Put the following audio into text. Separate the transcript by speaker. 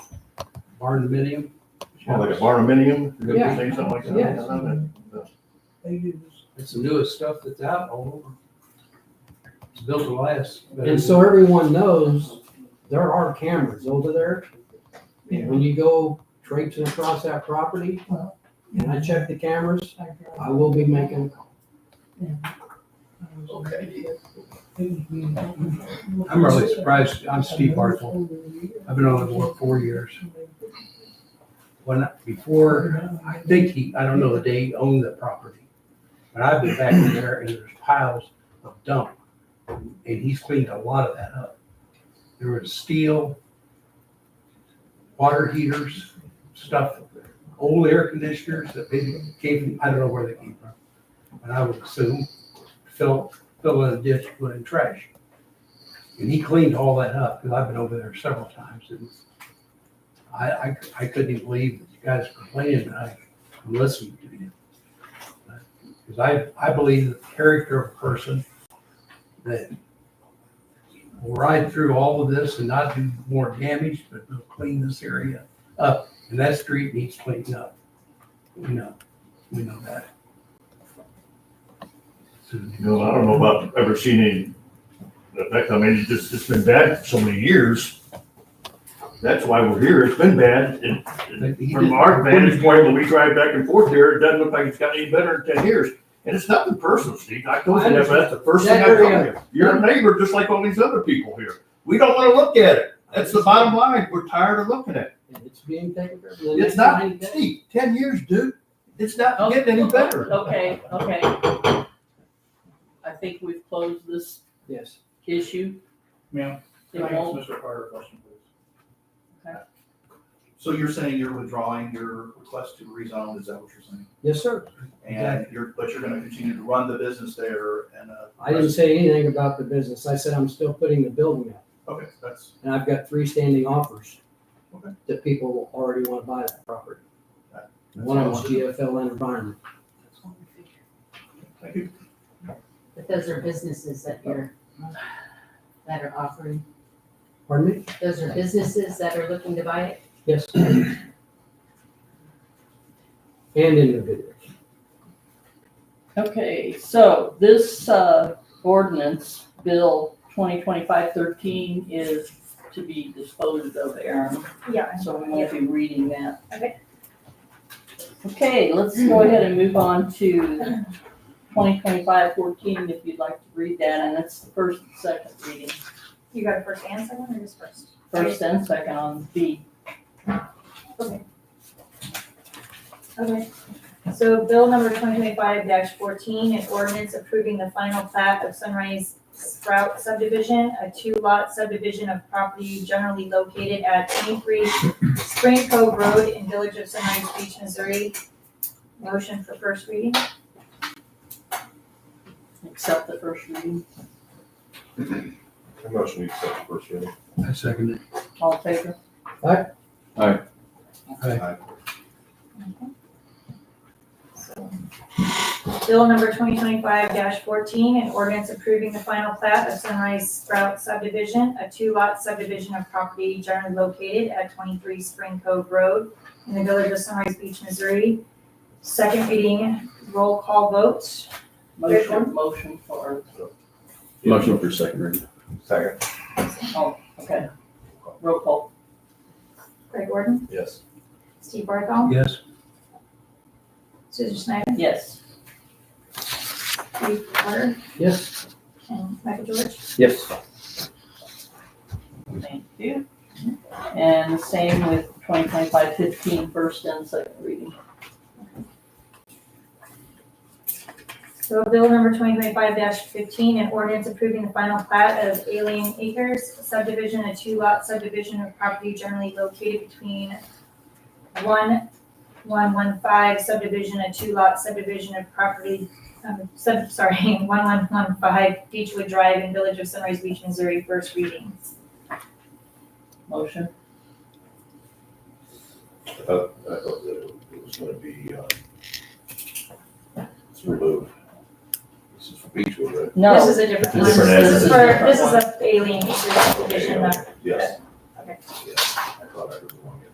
Speaker 1: barn dominium.
Speaker 2: Well, like a barnuminium, you
Speaker 1: Yeah.
Speaker 2: could say something like that.
Speaker 1: Yes.
Speaker 2: I don't know.
Speaker 3: They do this.
Speaker 1: It's the newest stuff that's out all over. It's built to last. but-
Speaker 4: And so everyone knows there are cameras over there. And when you go traipsing across that property, and I check the cameras,
Speaker 3: I drive-
Speaker 4: I will be making a call.
Speaker 3: I was-
Speaker 2: Okay.
Speaker 1: I'm really surprised. I'm Steve Bartle. I've been on the board four years. When, before, I think he, I don't know the day he owned the property. But I've been back in there and there's piles of dump. And he's cleaned a lot of that up. There was steel, water heaters, stuff, old air conditioners that they gave, I don't know where they came from. And I would assume fill, fill in a ditch, put in trash. And he cleaned all that up, because I've been over there several times, and I, I, I couldn't even believe that you guys were complaining, and I listened to you. Because I, I believe the character of a person that will ride through all of this and not do more damage, but will clean this area up, and that street needs cleaned up. We know, we know that. So,
Speaker 2: You know, I don't know about ever seeing any, that- that, I mean, it's just, it's been bad for so many years. That's why we're here. It's been bad. And
Speaker 1: but he
Speaker 2: from
Speaker 1: did-
Speaker 2: our vantage point, when we drive back and forth here, it doesn't look like it's gotten any better in ten years. And it's nothing personal, Steve. I told you that, but that's the first thing I
Speaker 4: That
Speaker 2: told
Speaker 4: area-
Speaker 2: you. You're a neighbor, just like all these other people here. We don't wanna look at it. That's the bottom line. We're tired of looking at it.
Speaker 4: And it's being taken care of. The next
Speaker 2: It's not,
Speaker 4: 90 days.
Speaker 2: Steve, ten years, dude. It's not getting any better.
Speaker 5: Okay, okay. I think we've closed this
Speaker 4: Yes.
Speaker 5: issue.
Speaker 6: Ma'am,
Speaker 5: It
Speaker 6: can I ask
Speaker 5: won't-
Speaker 6: Mr. Carter a question, please?
Speaker 5: Okay.
Speaker 6: So you're saying you're withdrawing your request to rezone, is that what you're saying?
Speaker 4: Yes, sir.
Speaker 6: And you're, but you're gonna continue to run the business there and, uh.
Speaker 4: I didn't say anything about the business. I said I'm still putting the building up.
Speaker 6: Okay, that's,
Speaker 4: And I've got three standing offers
Speaker 6: Okay.
Speaker 4: that people already want to buy that property.
Speaker 6: That's
Speaker 4: One of
Speaker 6: awesome.
Speaker 4: them's GFL Environment.
Speaker 6: thank you.
Speaker 7: But those are businesses that you're, that are offering,
Speaker 4: Pardon me?
Speaker 7: those are businesses that are looking to buy it?
Speaker 4: Yes. And individuals.
Speaker 5: Okay, so this, uh, ordinance, Bill twenty twenty-five thirteen is to be disposed of, Aaron,
Speaker 8: Yeah,
Speaker 5: so we won't be reading that.
Speaker 8: Okay.
Speaker 5: Okay, let's go ahead and move on to 2025-14. if you'd like to read that, and that's the first and second reading.
Speaker 8: you got a first and second or just first?
Speaker 5: First and second on B.
Speaker 8: Okay. So bill number twenty twenty-five fourteen, an ordinance approving the final plat of Sunrise Sprout subdivision, a two-lot subdivision of property generally located at twenty-three Spring Cove Road in Village of Sunrise Beach, Missouri. Motion for first reading?
Speaker 5: Accept the first reading.
Speaker 2: I motion we accept the first reading.
Speaker 1: I second it.
Speaker 5: All in favor?
Speaker 4: Aye.
Speaker 2: Aye.
Speaker 1: Aye.
Speaker 8: Bill number twenty twenty-five fourteen, an ordinance approving the final plat of Sunrise Sprout subdivision, a two-lot subdivision of property generally located at twenty-three Spring Cove Road in the village of Sunrise Beach, Missouri. Second reading, roll call vote. There's
Speaker 5: Motion, motion for,
Speaker 9: Motion for second reading.
Speaker 2: Second.
Speaker 5: oh, okay. Roll call.
Speaker 8: Greg Gordon,
Speaker 2: Yes.
Speaker 8: Steve Barthol,
Speaker 1: Yes,
Speaker 8: Susan Schneider,
Speaker 5: Yes.
Speaker 8: Steve Carter,
Speaker 4: Yes.
Speaker 8: and Michael George.
Speaker 9: Yes.
Speaker 5: Thank you. And same with 2025 15, first and second reading.
Speaker 8: So bill number twenty twenty-five fifteen, an ordinance approving the final plat of Alien Acres subdivision, a two-lot subdivision of property generally located between one, one, one, five subdivision, a two-lot subdivision of property, um, sub, sorry, one, one, one, five Beechwood Drive in Village of Sunrise Beach, Missouri, first reading.
Speaker 5: Motion.
Speaker 2: I thought, I thought that it was gonna be, uh, it's removed. This is for Beechwood, right?
Speaker 5: No.
Speaker 8: This is a different one.
Speaker 2: Different
Speaker 8: This is
Speaker 2: address.
Speaker 8: for, this is a Alien Acres subdivision,
Speaker 2: um, Yes.